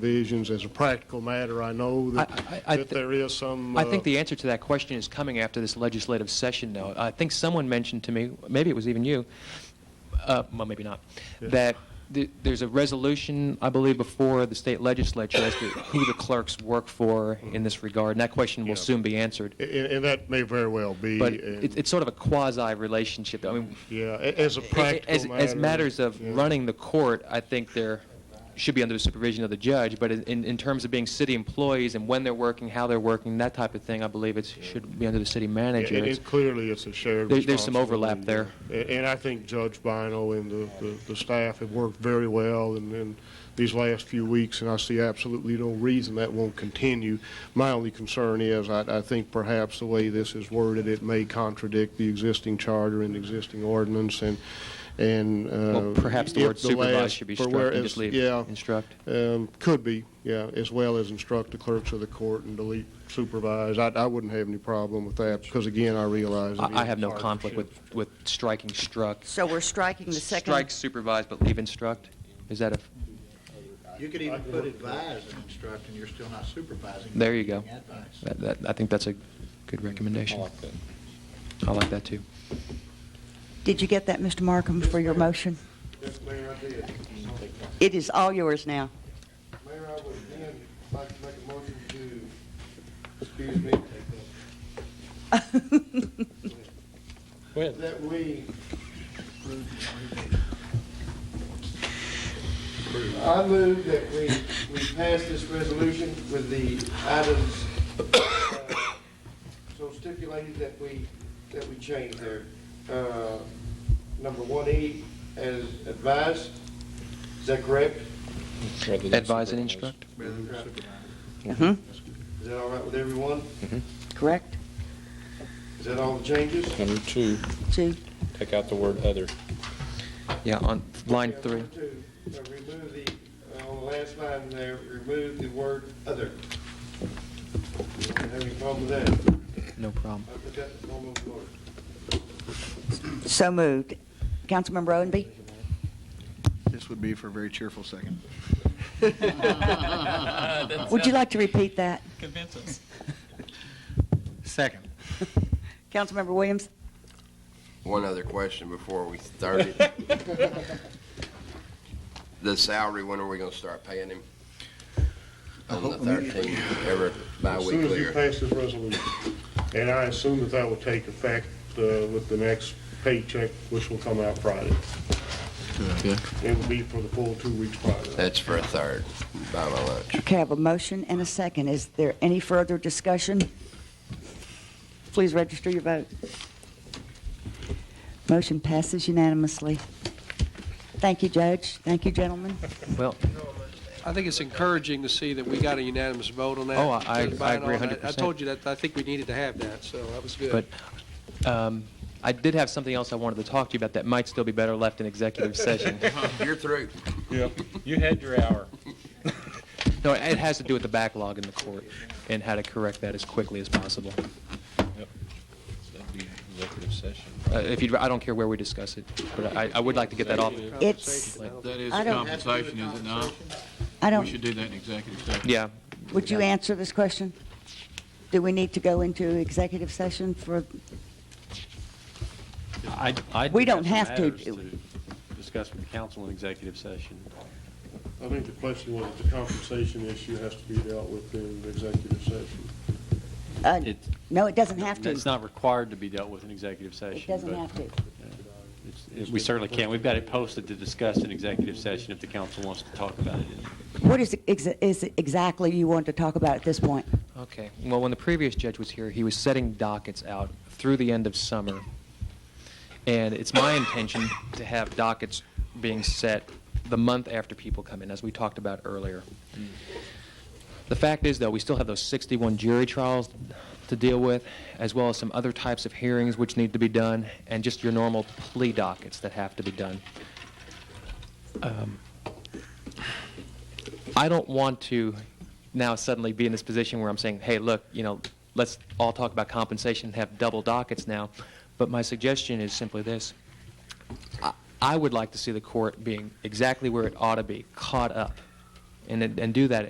provisions. As a practical matter, I know that, I- I- I that thi- there is some. I think uh, the answer to that question is coming after this legislative session, though. I think someone mentioned to me, maybe it was even you, uh, well, maybe not, Yeah. that th- there's a resolution, I believe, before the state legislature as to who the clerks work for in this regard, and that question will Yeah. soon be answered. a- And, and that may very well be. But and- it, it's sort of a quasi relationship. I mean, Yeah, a- as a practical as, matter. as matters of yeah. running the court, I think there should be under the supervision of the judge. But in, in terms of being city employees and when they're working, how they're working, that type of thing, I believe it should be under the city And, manager. It's- and clearly, it's a shared There- there's some responsibility, overlap there. yeah. A- And I think Judge Bino and the, the, the staff have worked very well in, in these last few weeks, and I see absolutely no reason that won't continue. My only concern is, I, I think perhaps the way this is worded, it may contradict the existing charter and existing ordinance, and, and. well, uh, perhaps the if word supervise last- should be for struck whereas- and just leave Yeah, instruct. um, Could be, yeah, as well as instruct the clerks of the court and delete supervise. I, I wouldn't have any problem with that, because again, I realize. it is I, I have no hard to conflict with, shift. with striking struck. So we're striking the second. Strike supervise but leave instruct? Is that a, You could even put advise and instruct, and you're still not supervising. There you go. Giving advice. that, that, I think that's a good recommendation. I like that. I like that too. Did you get that, Mr. Markham, for your motion? Yes, Mayor, I did. It is all yours now. Mayor, I would again like to make a motion to, excuse me, that we. I move that we, we pass this resolution with the items uh, so stipulated that we, that we change there. Uh, Number one E as advised, is that correct? Advise and instruct? Mhm. Is that all right with everyone? Correct? Is that all the changes? Number two, Two? take out the word other. Yeah, on line Yeah, three. number two, uh, Remove the, uh, on the last line there, remove the word other. You don't Have any problem with that? No problem. I put that in the form of order. So moved. Councilmember Owenby? This would be for a very cheerful second. Would you like to repeat that? Convince us. Second. Councilmember Williams? One other question before we started. The salary, when are we gonna start paying him? On the thirteenth, every As soon as bi-weekly you or? pass this resolution, and I assume that that will take effect uh, with the next paycheck, which will come out Friday. It will be for the full two weeks Friday. That's for a third, by my lunch. Okay, I have a motion and a second. Is there any further discussion? Please register your vote. Motion passes unanimously. Thank you, Judge. Thank you, gentlemen. Well, I think it's encouraging to see that we got a unanimous vote on that. Oh, I- I- Judge Bynum, I agree and 100%. I told you that, I think we needed to have that, so that was good. But um, I did have something else I wanted to talk to you about that might still be better left in executive session. You're through. You had your hour. No, it has to do with the backlog in the court and how to correct that as quickly as possible. That'd be executive session. Uh, If you, I don't care where we discuss it, but I, I would like to get that off. It's, That is I don't- compensation, is it not? I We don't, should do that in executive session. Yeah, would you answer this question? Do we need to go into executive session for, I, I. We do don't some have to matters do- Discuss with council in executive session. I think the question was if the compensation issue has to be dealt with in the executive session. uh, It, no, it doesn't have to. it's not required to be dealt with in executive session. It doesn't but have to. it's- it- We certainly can. We've got it posted to discuss in executive session if the council wants to talk about it. What is, ex- is it exactly you want to talk about at this point? okay. Well, when the previous judge was here, he was setting dockets out through the end of summer. And it's my intention to have dockets being set the month after people come in, as we talked about earlier. The fact is, though, we still have those 61 jury trials to deal with, as well as some other types of hearings which need to be done, and just your normal plea dockets that have to be done. Um, I don't want to now suddenly be in this position where I'm saying, hey, look, you know, let's all talk about compensation and have double dockets now. But my suggestion is simply this. I- I would like to see the court being exactly where it ought to be, caught up and, and do that